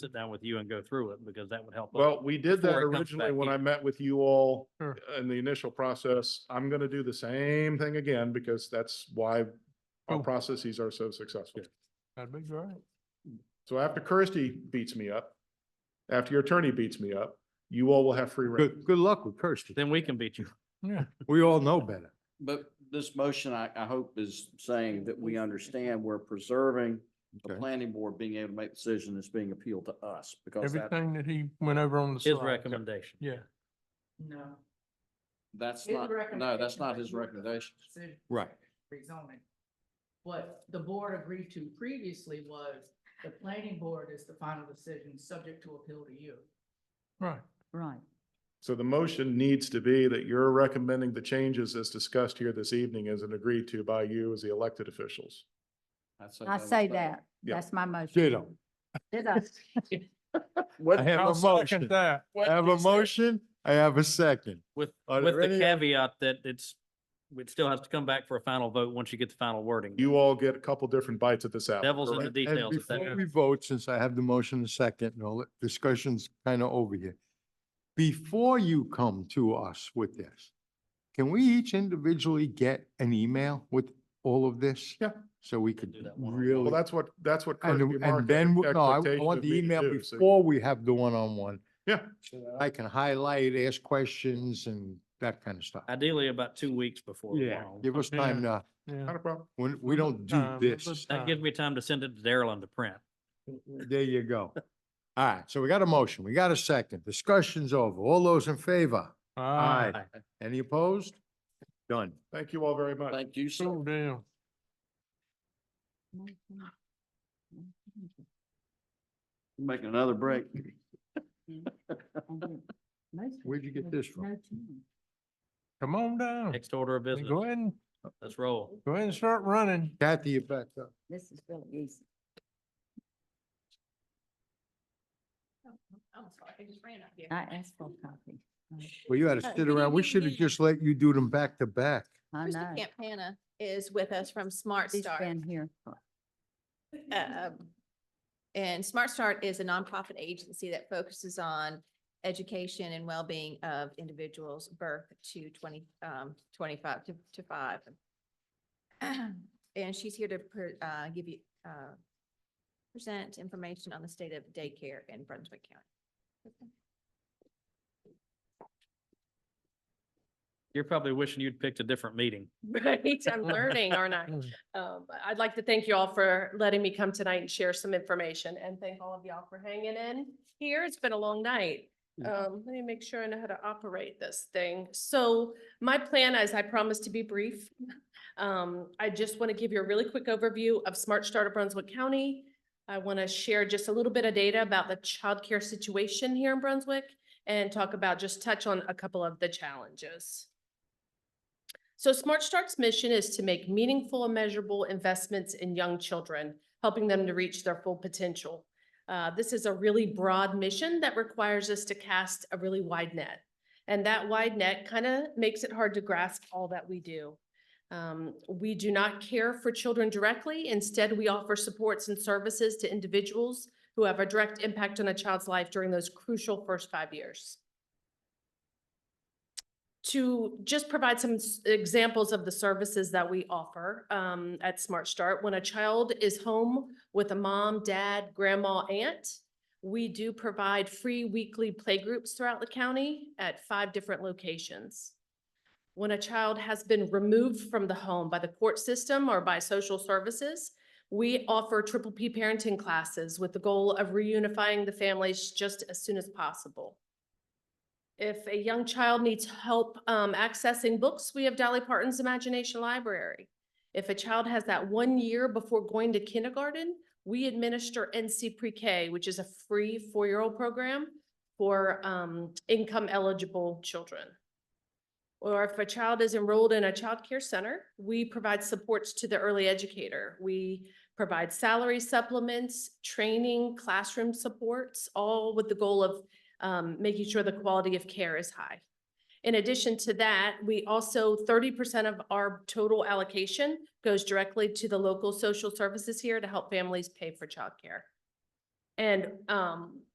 sit down with you and go through it because that would help. us. Well, we did that before it comes originally back when in. I met with you all Sure. in the initial process. I'm gonna do the same thing again because that's why our Oh. Cool. processes are so successful. That'd be great. So after Kirsty beats me up, after your attorney beats me up, you all will have free reign. Good, good luck with Kirsty. Then we can beat you. Yeah. We all know better. But this motion, I, I hope is saying that we understand we're preserving the Okay. planning board being able to make decision that's being appealed to us because that, Everything that he went over on the slide. His recommendation. Yeah. No. that's His not, no, that's recommendation not was his you were- recommendation. decision Right. rezoning. What the board agreed to previously was the planning board is the final decision, subject to appeal to you. Right. Right. So the motion needs to be that you're recommending the changes as discussed here this evening as and agreed to by you as the elected officials. I was say done. that. Yeah. That's my motion. Ditto. Did I? I have I'll a second motion. that. I have a motion. I have a second. With, Are with there the any- caveat that it's, it still has to come back for a final vote once you get the final wording. You all get a couple different bites at this apple. Devil's in correct? the And- and details. if that- Before we vote, since I have the motion and second, and all the discussion's kind of over here. Before you come to us with this, can we each individually get an email with all of this? Yeah. So we could do that one-on-one. really. Well, that's what, that's what. Kirsty And, Mark and then, had we- no, I- I expectation want of the me to email do, so- before we have the one-on-one. Yeah. So that I can highlight, ask questions and that kind of stuff. Ideally about two weeks before. the final. Give us time to, Yeah. Not a problem. when, we don't do Um, this. let's- That gives me time to send it to Daryl and to print. There you go. All right, so we got a motion, we got a second, discussion's over, all those in favor? Aye. Any opposed? Done. Thank you all very much. Thank you, sir. Cool deal. Making another break. Where'd you get this from? Come on down. Next order of business. Hmm. Go ahead and, Let's roll. go ahead and start running. Kathy, you back up. This is really easy. I'm Oh, sorry, I just ran out here. I asked for a copy. Well, you had to sit around, we should have just let you do them back to back. I Krista know. Campana is with us from Smart She's Start. been here. for- Um, And Smart Start is a nonprofit agency that focuses on education and well-being of individuals birth to twenty, um, twenty-five to, to five. And she's here to, per- uh, give you, uh, present information on the state of daycare in Brunswick County. You're probably wishing you'd picked a different meeting. Right, I'm learning, aren't I? Mm. Um, but I'd like to thank you all for letting me come tonight and share some information and thank all of y'all for hanging in here. It's been a long night. Um, let me make sure I know how to operate this thing. So my plan is I promise to be brief. Um, I just want to give you a really quick overview of Smart Start of Brunswick County. I want to share just a little bit of data about the childcare situation here in Brunswick and talk about, just touch on a couple of the challenges. So Smart Start's mission is to make meaningful and measurable investments in young children, helping them to reach their full potential. Uh, this is a really broad mission that requires us to cast a really wide net. And that wide net kind of makes it hard to grasp all that we do. Um, we do not care for children directly. Instead, we offer supports and services to individuals who have a direct impact on a child's life during those crucial first five years to just provide some s- examples of the services that we offer um, at Smart Start. When a child is home with a mom, dad, grandma, aunt, we do provide free weekly playgroups throughout the county at five different locations. When a child has been removed from the home by the court system or by social services, we offer triple P parenting classes with the goal of reunifying the families just as soon as possible. If a young child needs help um, accessing books, we have Dolly Parton's Imagination Library. If a child has that one year before going to kindergarten, we administer NC Pre-K, which is a free four-year-old program for um, income-eligible children. Or if a child is enrolled in a childcare center, we provide supports to the early educator. We provide salary supplements, training, classroom supports, all with the goal of um, making sure the quality of care is high. In addition to that, we also, thirty percent of our total allocation goes directly to the local social services here to help families pay for childcare. And um,